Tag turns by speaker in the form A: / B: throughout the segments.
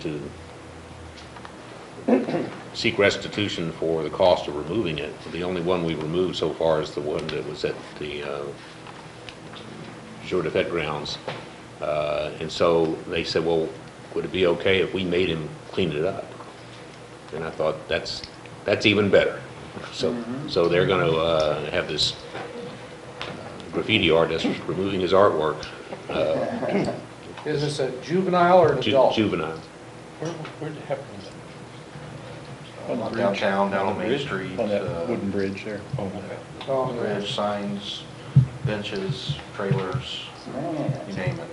A: to seek restitution for the cost of removing it. The only one we've removed so far is the one that was at the uh, Shore Defect grounds. Uh, And so they said, well, would it be okay if we made him clean it up? And I thought, that's, that's even better. So,
B: Mm-hmm.
A: so they're going to have this graffiti artist removing his artwork,
C: Is this a juvenile or an
A: ju-
C: adult?
A: juvenile.
D: Where, where'd it happen?
B: On the bridge.
E: Downtown, down on Main
D: Bridge?
E: Street.
B: On
E: uh,
B: that wooden bridge there.
D: Oh, okay.
C: Oh, yeah.
E: Bridge, signs, benches, trailers, you name it.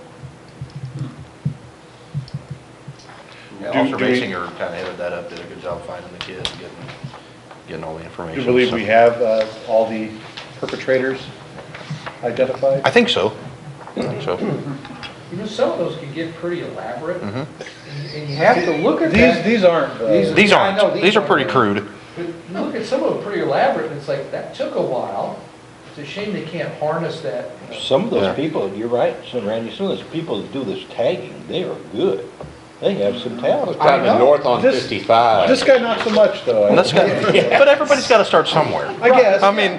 E: Yeah,
B: Do-
E: Officer
B: do we-
E: Basinger kind of headed that up, did a good job finding the kid, getting, getting all the
B: Do
E: information.
B: you believe we have uh, all the perpetrators identified?
E: I think so. I think so.
C: You know, some of those can get pretty elaborate, and
E: Mhm.
C: and you have to look at
B: These,
C: that.
B: these aren't, uh,
C: These-
E: These
C: I know
E: aren't,
C: these
E: these are
C: aren't.
E: pretty crude.
C: but you Look at some of them pretty elaborate, and it's like, that took a while. It's a shame they can't harness that. uh,
F: Some of
E: Yeah.
F: those people, you're right, some Randy, some of those people that do this tagging, they are good. They have some talent.
A: Kind
B: know.
A: of north on
B: This-
A: 55.
B: this guy not so much though. I-
E: And that's got- But everybody's got to start somewhere.
B: I guess.
E: I mean,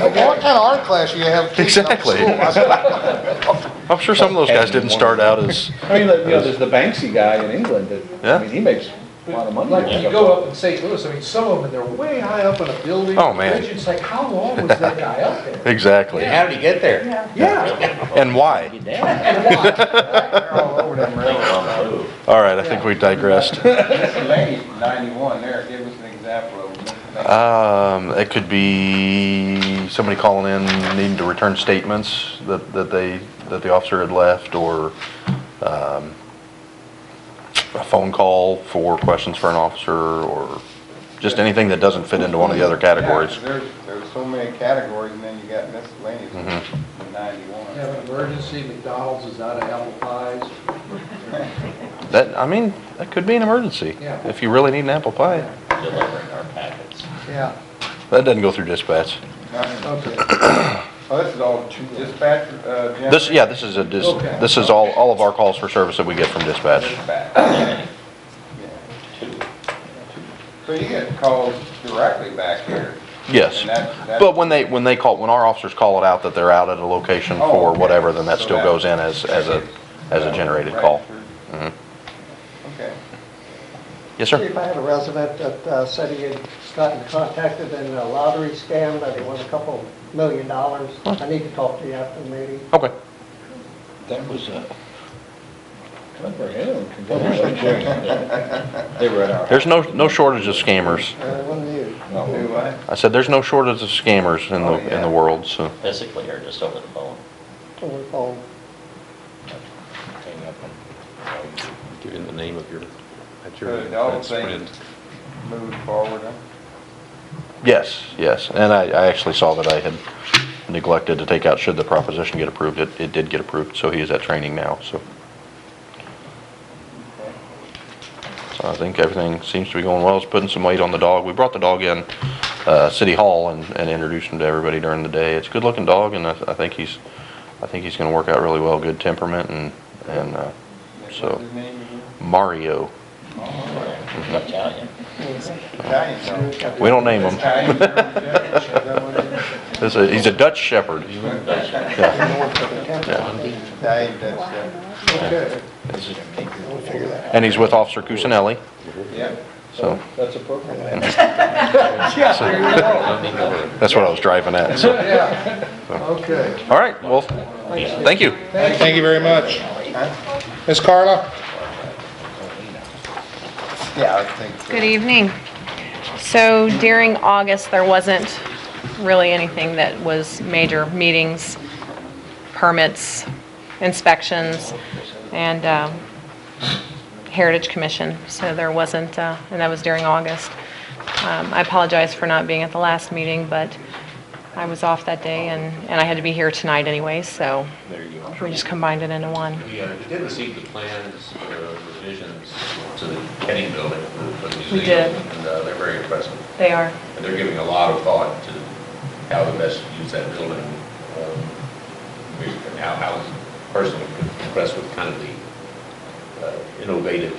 B: Okay.
G: kind of art class you have teaching up at
E: Exactly.
G: school? I said,
E: I'm sure some of those guys didn't start out as,
B: I mean, like, you know, there's the Banksy guy in England that,
E: Yeah.
B: I mean, he makes a lot of money.
C: Like,
B: off
C: when you
B: of-
C: go up in St. Louis, I mean, some of them, they're way high up on a building.
E: Oh, man.
C: bridge, It's like, how long was that guy up there?
E: exactly.
A: How did he get there?
C: Yeah.
E: And why?
F: Get down.
C: And why?
G: They're all over them rails.
E: All right, I think we digressed.
H: Mr. Lane, 91 there, give us an example of Mr. Lane.
E: Um, it could be somebody calling in needing to return statements that, that they, that the officer had left, or, um, a phone call for questions for an officer, or just anything that doesn't fit into one of the other categories.
H: Yeah, There's, there's so many categories, and then you got miscellaneous
E: Mm-hmm.
H: in
C: You Have
H: 91.
C: an emergency, McDonald's is out of apple pies.
E: That, I mean, that could be an emergency,
C: Yeah.
E: if you really need an apple pie.
F: Delivering our packets.
C: Yeah,
E: That doesn't go through dispatch.
H: Now,
C: okay.
H: Oh, this is all dispatch, uh, general?
E: This, yeah, this is a, dis-
C: Okay.
E: this is all, all of our calls for service that we get from dispatch.
H: Dispatch, okay. Yeah. So you get calls directly back here?
E: Yes,
H: And that- that-
E: but when they, when they call, when our officers call it out that they're out at a location
H: Oh,
E: for
H: okay.
E: whatever, then that
H: So
E: still
H: that-
E: goes in as, as a, as a generated
H: Right
E: call.
H: through.
E: Mhm.
H: Okay.
E: Yes, sir?
G: If I had a resident that uh, said he had gotten contacted in a lottery scam, that he won a couple million dollars, I need to talk to you after the meeting.
E: Okay.
F: That was a,
B: Good for him.
F: that was a journey. They were at our.
E: There's no, no shortage of scammers.
G: Uh, one of you.
H: Do what?
E: I said, there's no shortage of scammers in
H: Oh,
E: the, in
H: yeah.
E: the world, so.
F: Physically or just over the phone.
G: Over the phone.
F: Hang up and-
A: Give him the name of your, that's your,
H: So the dog
A: that's
H: thing
A: friend.
H: moved forward, huh?
E: Yes, yes, and I, I actually saw that I had neglected to take out should the proposition get approved. It, it did get approved, so he is at training now, so. So I think everything seems to be going well. It's putting some weight on the dog. We brought the dog in, uh, City Hall and, and introduced him to everybody during the day. It's a good-looking dog, and I, I think he's, I think he's gonna work out really well. Good temperament and, and, uh,
H: What's
E: so,
H: his name again?
E: Mario.
F: Italian.
H: Italian dog.
E: We don't name him.
H: Italian German Shepherd, is that what it is?
E: This is, he's a Dutch Shepherd.
H: Italian Dutch Shepherd.
G: Okay.
E: And he's with Officer Cusinelli,
H: Yeah.
E: so.
B: That's appropriate.
E: That's what I was driving at, so.
C: Okay.
E: All right, well, thank you.
I: Thank you very much. Ms. Carla?
H: Yeah, I think. so.
J: Good evening. So during August, there wasn't really anything that was major meetings, permits, inspections, and um, Heritage Commission. So there wasn't, uh, and that was during August. Um, I apologize for not being at the last meeting, but I was off that day, and and I had to be here tonight anyway, so
A: There you go.
J: we just combined it into one.
A: We uh, did receive the plans, uh, revisions to the Kenny building for the museum.
J: We did.
A: And uh, they're very impressive.
J: They are.
A: And they're giving a lot of thought to how to best use that building. um, And how, how personally impressed with kind of the uh, innovative